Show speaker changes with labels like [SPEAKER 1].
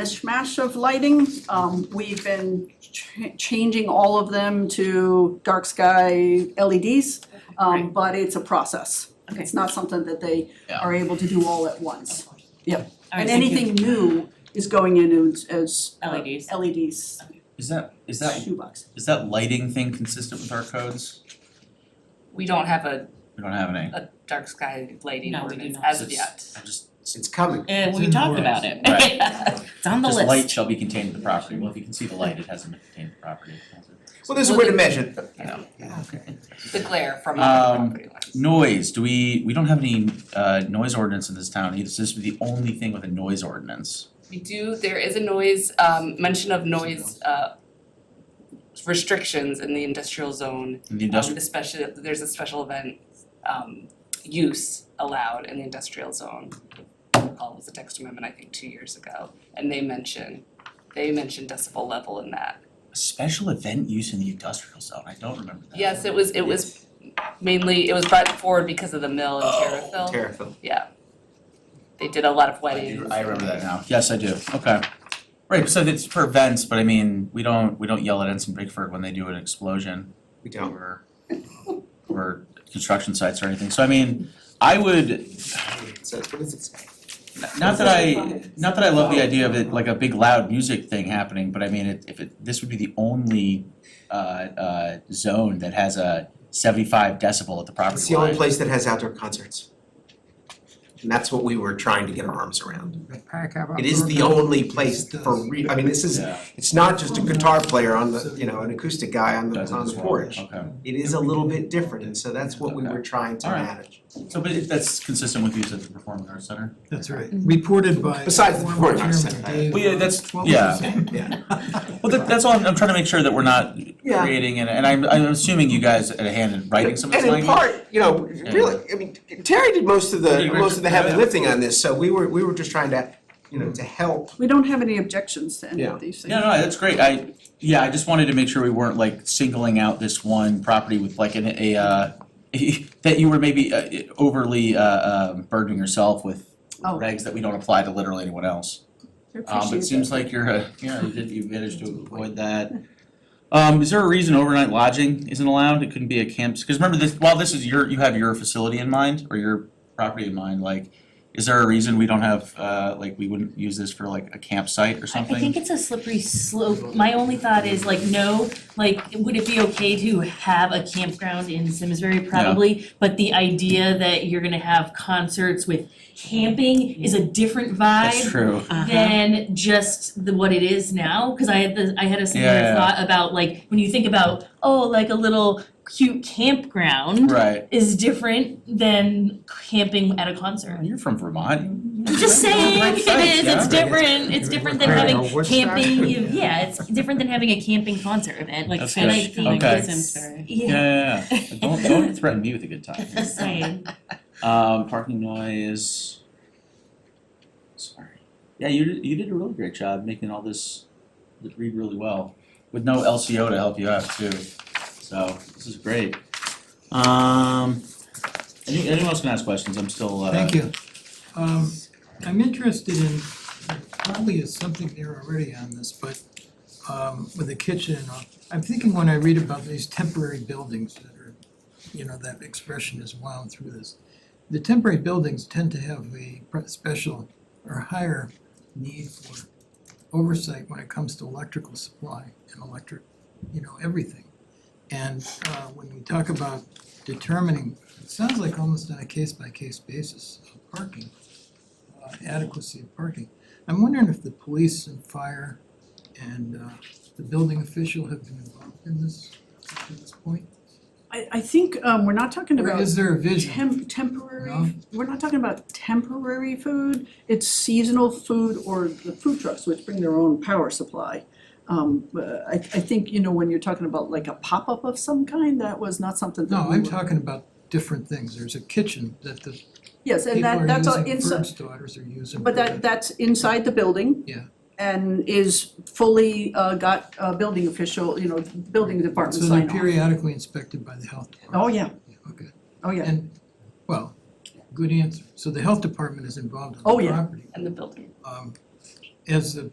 [SPEAKER 1] mishmash of lighting. Um, we've been ch- changing all of them to dark sky LEDs, um,
[SPEAKER 2] Right.
[SPEAKER 1] but it's a process.
[SPEAKER 2] Okay.
[SPEAKER 1] It's not something that they
[SPEAKER 3] Yeah.
[SPEAKER 1] are able to do all at once.
[SPEAKER 2] Alright,
[SPEAKER 1] And
[SPEAKER 2] thank you. E
[SPEAKER 1] anything new is going in as, as uh,
[SPEAKER 2] LEDs.
[SPEAKER 1] LEDs,
[SPEAKER 3] Is that, is that,
[SPEAKER 1] shoebox.
[SPEAKER 3] is that lighting thing consistent with our codes?
[SPEAKER 4] We don't have a,
[SPEAKER 3] We don't have any.
[SPEAKER 4] a dark sky lighting
[SPEAKER 2] No, we do
[SPEAKER 4] ordinance
[SPEAKER 2] not.
[SPEAKER 4] as of
[SPEAKER 3] It's-
[SPEAKER 4] yet.
[SPEAKER 3] I just,
[SPEAKER 5] It's coming.
[SPEAKER 2] Uh,
[SPEAKER 6] It's
[SPEAKER 2] we
[SPEAKER 6] in the
[SPEAKER 2] talked
[SPEAKER 6] works.
[SPEAKER 2] about it.
[SPEAKER 3] Right.
[SPEAKER 2] It's on the
[SPEAKER 3] just
[SPEAKER 2] list.
[SPEAKER 3] light shall be contained to the property. Well, if you can see the light, it hasn't been contained to the property.
[SPEAKER 5] Well, there's a way to measure it.
[SPEAKER 3] I know. Okay.
[SPEAKER 4] The glare from other
[SPEAKER 3] Um,
[SPEAKER 4] property lines.
[SPEAKER 3] Noise, do we, we don't have any uh noise ordinance in this town either. So This would be the only thing with a noise ordinance.
[SPEAKER 4] We do, there is a noise, um, mention of noise, uh, restrictions in the industrial zone.
[SPEAKER 3] In the
[SPEAKER 4] um,
[SPEAKER 3] industrial,
[SPEAKER 4] Especially, there's a special event, um, use allowed in the industrial zone. Paul was a text amendment, I think, two years ago, and they mention, they mentioned decibel level in that.
[SPEAKER 3] special event use in the industrial zone. I don't remember that.
[SPEAKER 4] Yes, it was, it was mainly, it was brought forward because of the mill in
[SPEAKER 3] Oh,
[SPEAKER 4] Terriffill.
[SPEAKER 5] Terrifil.
[SPEAKER 4] Yeah. They did a lot of
[SPEAKER 3] I
[SPEAKER 4] weddings.
[SPEAKER 3] do, I remember that now. Yes, I do. Okay. Right, so it's for events, but I mean, we don't, we don't yell at Ensign Bigford when they do an explosion.
[SPEAKER 5] We don't.
[SPEAKER 3] Or, or construction sites or anything, so I mean, I would,
[SPEAKER 5] So what does it say?
[SPEAKER 3] not that I, not that I love the idea of it, like a big loud music thing happening, but I mean, it- if it, this would be the only uh uh zone that has a seventy-five decibel at the
[SPEAKER 5] It's
[SPEAKER 3] property
[SPEAKER 5] the only
[SPEAKER 3] line.
[SPEAKER 5] place that has outdoor concerts. And that's what we were trying to get our arms around. It is the only place for re, I mean, this is,
[SPEAKER 3] Yeah,
[SPEAKER 5] it's not just a guitar player on the, you know, an acoustic guy on the
[SPEAKER 3] does it
[SPEAKER 5] on
[SPEAKER 3] as
[SPEAKER 5] the
[SPEAKER 3] well.
[SPEAKER 5] porch.
[SPEAKER 3] Okay,
[SPEAKER 5] It is a little bit different, and so that's what we were trying to
[SPEAKER 3] All right.
[SPEAKER 5] manage.
[SPEAKER 3] so but it- that's consistent with use at the performing arts center?
[SPEAKER 6] That's right, reported by.
[SPEAKER 5] Besides the
[SPEAKER 6] former
[SPEAKER 5] foreign arts
[SPEAKER 6] chairman
[SPEAKER 5] center.
[SPEAKER 6] Dave,
[SPEAKER 3] Mm-hmm. Well, yeah, that's-
[SPEAKER 6] uh, 12%.
[SPEAKER 3] yeah.
[SPEAKER 5] Yeah,
[SPEAKER 3] Well, that that's all, I'm I'm trying to make sure that we're not
[SPEAKER 5] Yeah.
[SPEAKER 3] creating, and and I'm I'm assuming you guys had a hand in writing some of this
[SPEAKER 5] and in
[SPEAKER 3] language.
[SPEAKER 5] part, you know, really, I mean, Terry did most of the,
[SPEAKER 3] Yeah.
[SPEAKER 5] most of the heavy
[SPEAKER 3] Yeah.
[SPEAKER 5] lifting on this, so we were, we were just trying to, you know, to help.
[SPEAKER 1] We don't have any objections to any
[SPEAKER 5] Yeah.
[SPEAKER 1] of these things.
[SPEAKER 3] No, no, that's great, I, yeah, I just wanted to make sure we weren't like singling out this one property with like an, a, uh, that you were maybe uh, overly, uh, um, burdening yourself with
[SPEAKER 1] Oh.
[SPEAKER 3] regs that we don't apply to literally anyone else.
[SPEAKER 1] I
[SPEAKER 3] Um,
[SPEAKER 1] appreciate
[SPEAKER 3] it seems like you're, uh, yeah, you did, you managed to avoid that. Um, is there a reason overnight lodging isn't allowed? It couldn't be a camp, because remember this, while this is your, you have your facility in mind, or your property in mind, like, is there a reason we don't have, uh, like, we wouldn't use this for like a campsite or
[SPEAKER 2] I
[SPEAKER 3] something?
[SPEAKER 2] I think it's a slippery slope. My only thought is like, no, like, would it be okay to have a campground in Simsbury? Probably, but the idea that you're gonna have concerts with camping is a different
[SPEAKER 3] That's
[SPEAKER 2] vibe
[SPEAKER 3] true.
[SPEAKER 2] than just the what it is now, cause I had the, I had a
[SPEAKER 3] Yeah, yeah.
[SPEAKER 2] similar thought about like, when you think about, oh, like a little cute campground
[SPEAKER 3] Right.
[SPEAKER 2] is different than camping at a concert.
[SPEAKER 3] You're from Vermont.
[SPEAKER 2] I'm just saying,
[SPEAKER 3] Right
[SPEAKER 2] it
[SPEAKER 3] sites,
[SPEAKER 2] is,
[SPEAKER 3] yeah.
[SPEAKER 2] it's different, it's different than
[SPEAKER 6] Right.
[SPEAKER 2] having
[SPEAKER 5] What's that?
[SPEAKER 2] camping, you- yeah, it's different than having a camping concert event, like,
[SPEAKER 3] That's
[SPEAKER 2] and I
[SPEAKER 3] good.
[SPEAKER 2] think
[SPEAKER 3] Okay.
[SPEAKER 2] it's-
[SPEAKER 3] Yeah,
[SPEAKER 2] Yeah,
[SPEAKER 3] yeah, yeah. But Don't don't threaten me with a good time.
[SPEAKER 2] just saying,
[SPEAKER 3] Um, parking noise. Sorry. Yeah, you did- you did a really great job making all this read really well with no LCO to help you out too. So this is great. Um, any- anyone else can ask questions? I'm still uh.
[SPEAKER 6] Thank you. Um, I'm interested in, probably is something there already on this, but um, with the kitchen and all. I'm thinking when I read about these temporary buildings that are, you know, that expression is wound through this. The temporary buildings tend to have a pre- special or higher need for oversight when it comes to electrical supply and electric, you know, everything. And uh, when we talk about determining it sounds like almost on a case-by-case basis of parking, uh, adequacy of parking. I'm wondering if the police and fire and uh, the building official have been involved in this, at this point?
[SPEAKER 1] I, I think, um, we're not talking
[SPEAKER 6] Or
[SPEAKER 1] about
[SPEAKER 6] is there a vision?
[SPEAKER 1] temp, temporary,
[SPEAKER 6] No?
[SPEAKER 1] we're not talking about temporary food, it's seasonal food or the food trucks, which bring their own power supply. Um, uh, I, I think, you know, when you're talking about like a pop-up of some kind, that was not something that
[SPEAKER 6] No,
[SPEAKER 1] we
[SPEAKER 6] I'm
[SPEAKER 1] were-
[SPEAKER 6] talking about different things. There's a kitchen that the
[SPEAKER 1] Yes, and
[SPEAKER 6] people
[SPEAKER 1] that,
[SPEAKER 6] are
[SPEAKER 1] that's all
[SPEAKER 6] using,
[SPEAKER 1] inside,
[SPEAKER 6] Bird's daughters are using.
[SPEAKER 1] but that, that's inside the building.
[SPEAKER 6] Yeah.
[SPEAKER 1] And is fully, uh, got, uh, building official, you know, building department
[SPEAKER 6] So
[SPEAKER 1] sign
[SPEAKER 6] they're
[SPEAKER 1] off.
[SPEAKER 6] periodically inspected by the health department.
[SPEAKER 1] Oh, yeah,
[SPEAKER 6] Yeah, Okay.
[SPEAKER 1] oh, yeah.
[SPEAKER 6] And, well, good answer. So the health department is involved in
[SPEAKER 1] Oh,
[SPEAKER 6] the
[SPEAKER 1] yeah.
[SPEAKER 6] property.
[SPEAKER 4] And the building.
[SPEAKER 6] Um, as the